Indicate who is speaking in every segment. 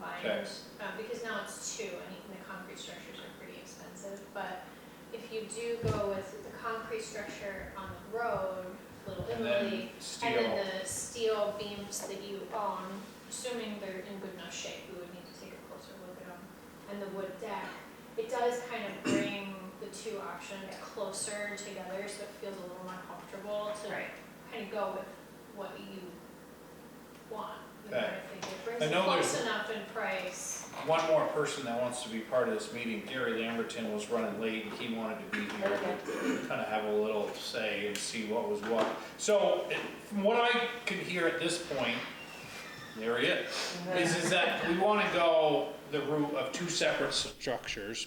Speaker 1: fine.
Speaker 2: Thanks.
Speaker 1: Um, because now it's two, and even the concrete structures are pretty expensive, but if you do go with the concrete structure on the road, Little
Speaker 2: And
Speaker 1: Italy,
Speaker 2: then
Speaker 1: and then
Speaker 2: steel,
Speaker 1: the steel beams that you own, assuming they're in good enough shape, we would need to take a closer look at them. And the wood deck, it does kind of bring the two options closer together, so it feels a little more comfortable to
Speaker 3: Right.
Speaker 1: kind of go with what you want. you know,
Speaker 2: Okay.
Speaker 1: I think it brings
Speaker 2: I
Speaker 1: it
Speaker 2: know there's-
Speaker 1: close enough in price.
Speaker 2: one more person that wants to be part of this meeting, Gary Lamberton was running late and he wanted to be here.
Speaker 3: Okay.
Speaker 2: Kind of have a little say and see what was what. So, it- from what I could hear at this point, there he is. is, is that we want to go the route of two separate structures.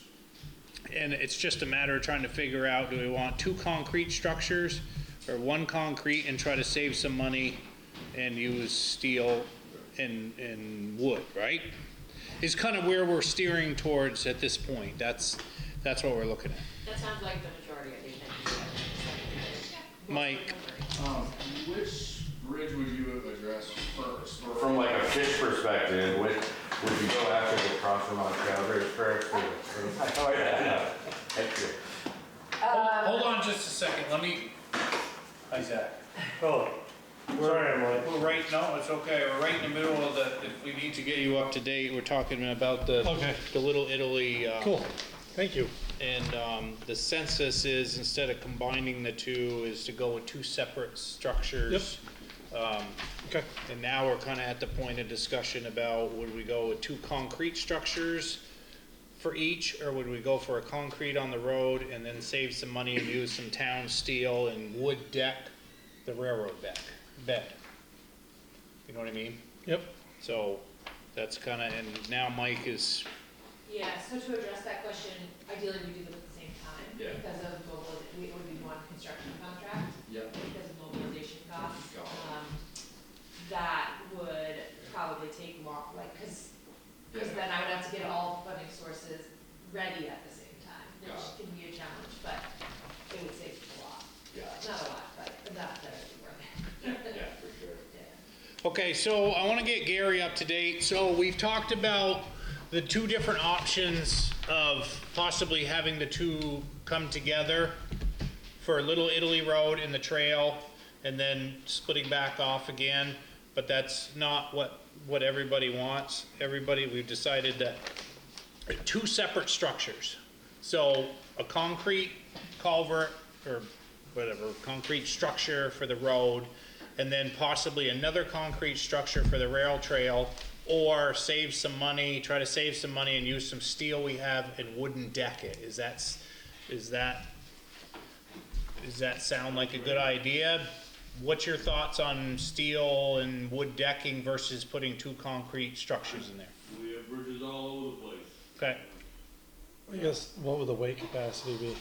Speaker 2: And it's just a matter of trying to figure out, do we want two concrete structures or one concrete and try to save some money and use steel and, and wood, right? Is kind of where we're steering towards at this point. That's, that's what we're looking at.
Speaker 3: That sounds like the majority of the attendees.
Speaker 2: Mike,
Speaker 4: Um, which bridge would you address first? or-
Speaker 5: From like a fish perspective, would, would you go after the crossing on Calvary first? or- or- Oh, yeah. Thank you.
Speaker 2: hold on just a second, let me, hi Zach.
Speaker 6: Oh, sorry, I'm late.
Speaker 2: We're right, no, it's okay, we're right in the middle of the, if we need to get you up to date, we're talking about the.
Speaker 6: Okay.
Speaker 2: The Little Italy, uh.
Speaker 6: Cool, thank you.
Speaker 2: And, um, the census is, instead of combining the two, is to go with two separate structures. Um,
Speaker 6: Okay.
Speaker 2: and now we're kinda at the point of discussion about, would we go with two concrete structures for each, or would we go for a concrete on the road and then save some money and use some town steel and wood deck, the railroad deck, bed? You know what I mean?
Speaker 6: Yep.
Speaker 2: So, that's kinda, and now Mike is,
Speaker 3: Yeah, so to address that question, ideally we do them at the same time.
Speaker 4: Yeah.
Speaker 3: Because of global, we it would be one construction contract
Speaker 4: Yep.
Speaker 3: because of mobilization costs.
Speaker 4: Got it.
Speaker 3: Um, That would probably take long, like, because, because
Speaker 4: Yeah.
Speaker 3: then I would have to get all funding sources ready at the same time,
Speaker 4: Got
Speaker 3: which can be a challenge, but it would save a lot.
Speaker 4: Yeah,
Speaker 3: Not a lot, but enough that it would be
Speaker 4: yeah,
Speaker 3: worth it.
Speaker 4: for sure.
Speaker 3: Yeah.
Speaker 2: Okay, so I want to get Gary up to date. So we've talked about the two different options of possibly having the two come together for Little Italy Road and the trail, and then splitting back off again. But that's not what, what everybody wants. Everybody, we've decided that two separate structures. So a concrete culvert or whatever, concrete structure for the road, and then possibly another concrete structure for the rail trail, or save some money, try to save some money and use some steel we have and wooden deck it. Is that, s- is that, does that sound like a good idea? What's your thoughts on steel and wood decking versus putting two concrete structures in there?
Speaker 7: We have bridges all over the place.
Speaker 2: Okay.
Speaker 6: I guess, what would the weight capacity be?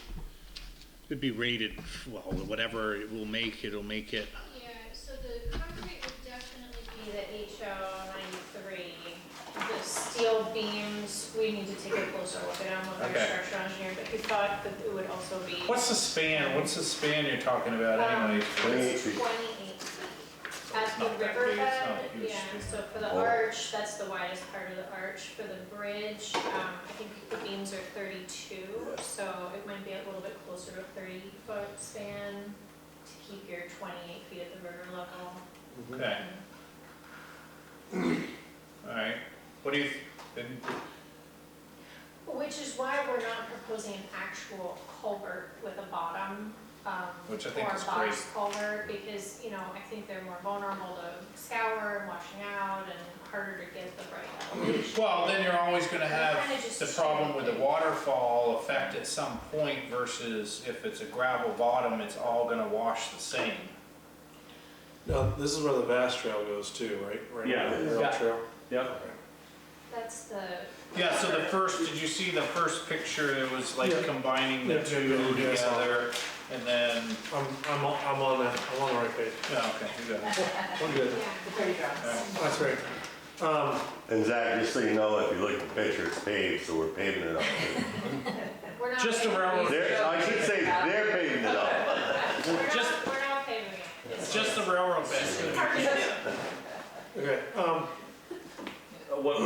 Speaker 2: It'd be rated, well, whatever it will make, it'll make it.
Speaker 1: Yeah, so the concrete would definitely be the HO ninety-three. The steel beams, we need to take a closer look at them with our
Speaker 2: Okay.
Speaker 1: structural engineer, but we thought that it would also be.
Speaker 2: What's the span, what's the span you're talking about
Speaker 1: Um,
Speaker 2: anyway?
Speaker 5: Twenty-eight feet.
Speaker 1: Twenty-eight feet. At
Speaker 2: It's
Speaker 1: the
Speaker 2: not that big, it's not
Speaker 1: riverbed,
Speaker 2: a huge
Speaker 1: yeah,
Speaker 2: street.
Speaker 1: so for the
Speaker 5: Oh.
Speaker 1: arch, that's the widest part of the arch. For the bridge, um, I think the beams are thirty-two, so it might be a little bit closer to a thirty-foot span to keep your twenty-eight feet at the river level.
Speaker 2: Okay. Alright, what do you, then,
Speaker 1: Which is why we're not proposing an actual culvert with a bottom, um,
Speaker 2: Which I think
Speaker 1: or a
Speaker 2: is
Speaker 1: box culvert, because, you know, I think they're more vulnerable to scour and washing out and harder to get the right elevation.
Speaker 2: well, then you're always gonna
Speaker 1: Kinda
Speaker 2: have
Speaker 1: just
Speaker 2: the problem with the
Speaker 1: shaping.
Speaker 2: waterfall effect at some point versus if it's a gravel bottom, it's all gonna wash the same.
Speaker 6: Now, this is where the vast trail goes too, right? Right
Speaker 5: Yeah.
Speaker 6: now, the Rail
Speaker 5: Yeah.
Speaker 6: trail.
Speaker 5: Yep.
Speaker 1: That's the.
Speaker 2: Yeah, so the first, did you see the first picture, it was like
Speaker 6: Yeah.
Speaker 2: combining the
Speaker 6: Yeah, yeah,
Speaker 2: two
Speaker 6: yeah, yeah, I saw it.
Speaker 2: together, and then,
Speaker 6: I'm, I'm, on- I'm on that, I'm on the right page.
Speaker 2: yeah, Oh, okay, you got it.
Speaker 6: We're good. That's right. Um,
Speaker 5: And Zach, just so you know, if you look at the picture, it's paved, so we're paving it up.
Speaker 1: We're not
Speaker 2: Just
Speaker 1: paving-
Speaker 2: around-
Speaker 5: They're, I should say, they're paving it up.
Speaker 1: We're not,
Speaker 2: just-
Speaker 1: we're not paving it.
Speaker 2: It's just the railroad bed.
Speaker 1: It's-
Speaker 6: okay, um,
Speaker 7: What